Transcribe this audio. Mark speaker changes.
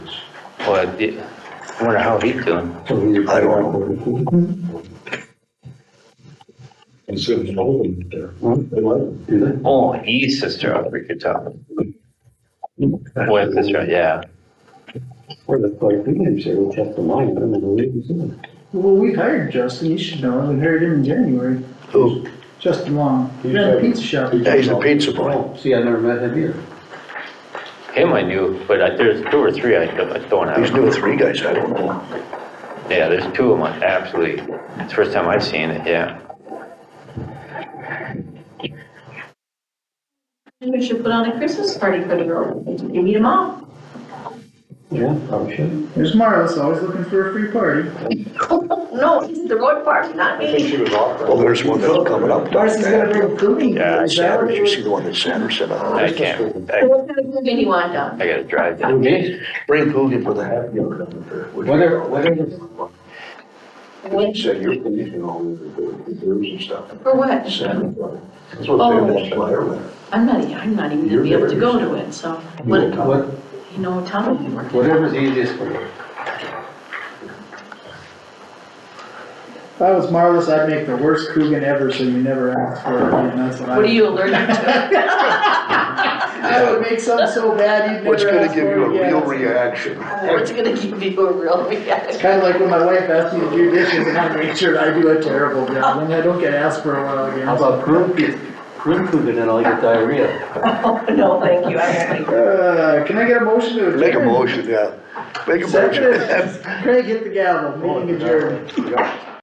Speaker 1: Well, I did- I wonder how he's doing.
Speaker 2: I don't know.
Speaker 3: And so it's open there.
Speaker 2: They like, do they?
Speaker 1: Oh, he's sister of Ricky Tubman. Boy, sister, yeah.
Speaker 2: Or the, like, they didn't say, we kept the line, I don't know, they didn't.
Speaker 4: Well, we hired Justin, you should know, we hired him in January,
Speaker 3: Who?
Speaker 4: Justin Long, he
Speaker 2: He's
Speaker 4: ran a
Speaker 2: hired-
Speaker 4: pizza shop.
Speaker 3: Yeah, he's a pizza boy.
Speaker 2: Oh, see, I never met him either.
Speaker 1: Him I knew, but I- there's two or three I don't, I don't have.
Speaker 3: These new three guys, I don't know.
Speaker 1: Yeah, there's two of them, absolutely. It's the first time I've seen it, yeah.
Speaker 5: We should put on a Christmas party for the girls, you need them all.
Speaker 2: Yeah, probably should.
Speaker 4: There's Marlis, always looking for a free party.
Speaker 5: No, it's the road party, not me.
Speaker 3: Well, there's one that's coming up.
Speaker 6: Darcy's gonna bring foodie.
Speaker 3: Yeah,
Speaker 6: Is that what
Speaker 3: Sanders,
Speaker 6: it
Speaker 3: you
Speaker 6: was?
Speaker 3: see the one that Sanders sent out?
Speaker 1: I can't, I,
Speaker 5: So What kind of food do you want, Doc?
Speaker 1: I gotta drive down.
Speaker 3: Okay, Bring food for the happy hour down there.
Speaker 2: Whatever, whatever.
Speaker 5: What-
Speaker 3: Said you're conditioning all the the doors and stuff.
Speaker 5: For what?
Speaker 3: Sanders, that's what they were flying.
Speaker 5: I'm not, I'm not even gonna be able to go to it, so. What,
Speaker 2: What,
Speaker 5: you know, Tom will be working.
Speaker 2: whatever's easiest for you.
Speaker 4: If I was Marlis, I'd make the worst Coogan ever, so you never ask for it, and that's what I.
Speaker 5: What are you allergic to?
Speaker 4: I would make something so bad, you'd
Speaker 3: What's
Speaker 4: never
Speaker 3: gonna
Speaker 4: ask
Speaker 3: give you
Speaker 4: for
Speaker 3: a
Speaker 4: it again.
Speaker 3: real reaction?
Speaker 5: What's gonna give you a real reaction?
Speaker 4: Kinda like when my wife asked me to do dishes, and I make sure I do a terrible job, and I don't get asked for a while again.
Speaker 2: How about prune, prune food and then I'll get diarrhea.
Speaker 5: Oh, no, thank you, I don't like.
Speaker 4: Uh, can I get a motion to adjourn?
Speaker 3: Make a motion, yeah. Make a
Speaker 4: Second,
Speaker 3: motion.
Speaker 4: Craig, hit the gavel, meeting adjourned.
Speaker 2: Yeah.